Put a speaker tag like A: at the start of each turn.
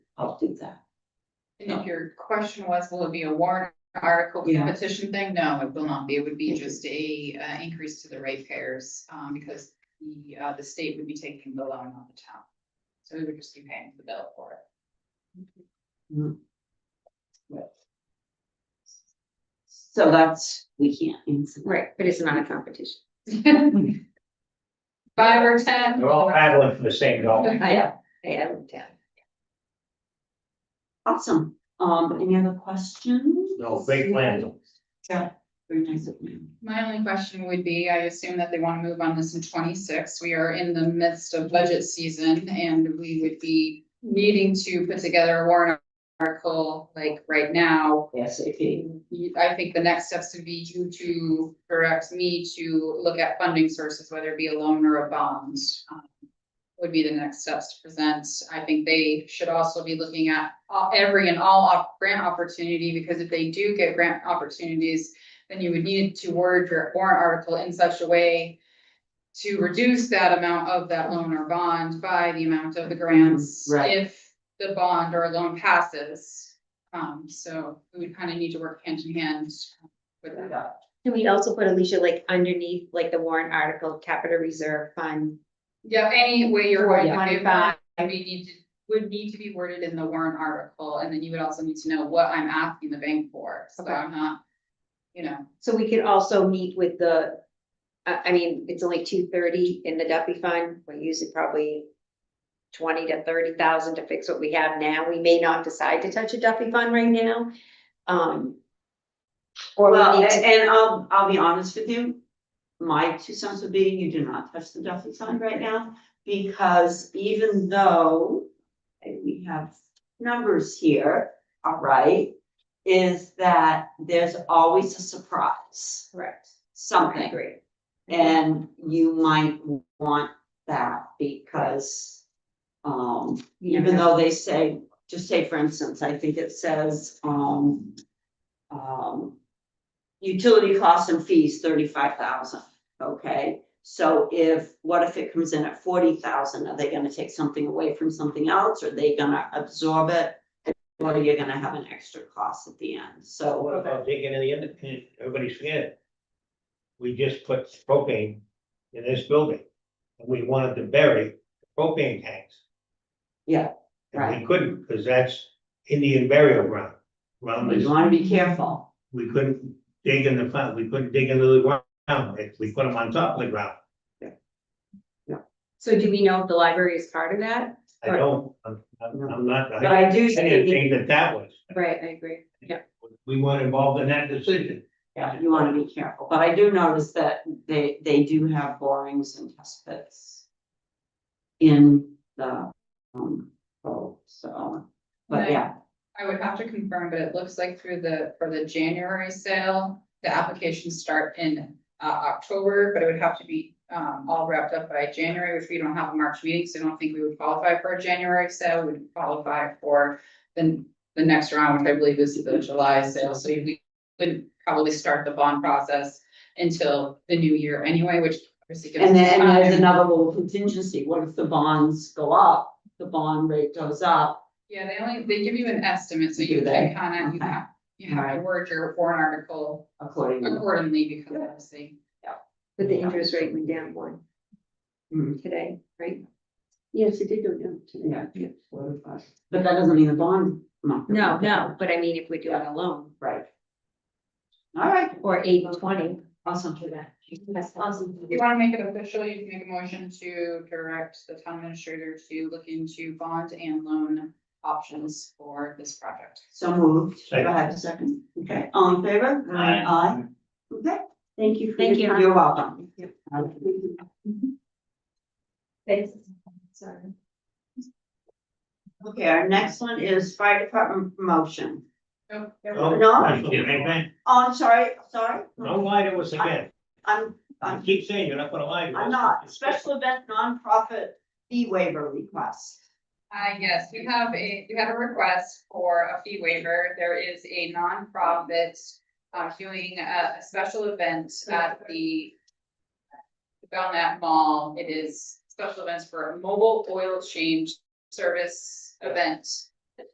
A: I'll do that.
B: And if your question was, will it be a warrant article for the
A: Yeah.
B: petition thing? No, it will not be. It would be just a uh increase to the ratepayers. Um, because the uh, the state would be taking the loan on the town. So we would just be paying the bill for it.
A: So that's, we can't answer. that.
C: Right, but it's not a competition.
B: Five or ten?
D: They're all paddling for the same dollar.
C: I, I looked at.
A: Awesome. Um, any other questions?
D: No, big plans.
A: Very nice of you.
B: My only question would be, I assume that they want to move on this in twenty-six. We are in the midst of budget season and we would be needing to put together a warrant article like right now
A: Yes, okay.
B: you- I think the next steps would be you to direct me to look at funding sources, whether it be a loan or a bond. um, Would be the next steps to present. I think they should also be looking at all- every and all op- grant opportunity, because if they do get grant opportunities, then you would need to word your warrant article in such a way to reduce that amount of that loan or bond by the amount of the grants.
A: Right.
B: If the bond or loan passes. Um, so we would kind of need to work hand in hand with that.
C: Can we also put Alicia like underneath, like the warrant article, capital reserve fund?
B: Yeah, any way you're going to do that,
C: 25.
B: we need to, would need to be worded in the warrant article, and then you would also need to know what I'm asking the bank for, so
C: Okay.
B: I'm not. You know,
C: So we could also meet with the, I, I mean, it's only two thirty in the Duffy Fund, we use it probably twenty to thirty thousand to fix what we have now, we may not decide to touch a Duffy Fund right now. Um. Or
A: Well,
C: we need
A: a-
C: to,
A: and I'll, I'll be honest with you. My two cents would be you do not touch the Duffy sign right now, because even though and we have numbers here, all right, is that there's always a surprise,
C: correct, I
A: something.
C: agree.
A: And you might want that because, um,
C: You
A: even
C: know,
A: though they say, just say for instance, I think it says, um, um, utility costs and fees thirty-five thousand, okay? So if, what if it comes in at forty thousand? Are they gonna take something away from something else? Are they gonna absorb it? Or you're gonna have an extra cost at the end, so.
D: What about digging in the end, and everybody's scared? We just put propane in this building, and we wanted to bury propane tanks.
A: Yeah,
D: And we
A: right.
D: couldn't, because that's Indian burial ground. Around
A: You
D: this,
A: wanna be careful.
D: we couldn't dig in the front, we couldn't dig into the ground, If we put them on top of the ground.
C: So do we know if the library is part of that?
D: I don't, I'm, I'm I'm not,
A: But
D: I
A: I do
D: didn't
A: see,
D: think that that was,
C: Right, I agree.
D: we weren't involved in that decision.
A: yeah, you wanna be careful, but I do notice that they, they do have borings and test pits. In the, um, oh, so, but
B: Right.
A: yeah,
B: I would have to confirm, but it looks like through the, for the January sale, the applications start in uh October, but it would have to be um all wrapped up by January, which we don't have a March meeting, so I don't think we would qualify for a January sale, we would qualify for the the next round, which I believe is the July sale, so we would probably start the bond process until the new year anyway, which obviously gives us
A: and then
B: time.
A: there's another little contingency, what if the bonds go up? The bond rate goes up,
B: Yeah, they only, they give you an estimate, so
A: Do
B: you
A: they?
B: can kind of, you
A: Okay.
B: have, you have to
A: Alright.
B: word your warrant article
A: accordingly.
B: accordingly because obviously.
C: But the interest rate went down one
A: Hmm.
C: today, right?
A: Yes, it did go down Yeah, yeah, four to five. but that doesn't mean the bond. market
C: No,
A: went down.
C: no, but I mean, if we're doing a loan
A: Right. All right,
C: or eight and twenty.
A: awesome to that.
C: That's awesome.
B: If you want to make it official, you can make a motion to direct the town administrator to look into bond and loan options for this project.
A: So moved. Do
D: Second.
A: I have a second? Okay, all in favor?
D: Aye.
A: Aye. Okay, thank you. for
C: Thank
A: your
C: you.
A: time. You're welcome.
C: Thanks. Sorry.
A: Okay, our next one is fire department promotion.
B: Nope.
D: No,
A: No.
D: I didn't, man.
A: Oh, I'm sorry, sorry.
D: Don't lie to us again.
A: I'm,
D: I
A: I'm,
D: keep saying you're not gonna lie to us.
A: I'm not. Special event nonprofit fee waiver request.
B: Uh, yes, we have a, we have a request for a fee waiver. There is a nonprofit uh, doing a, a special event at the Belknap Mall. It is special events for a mobile oil change service event.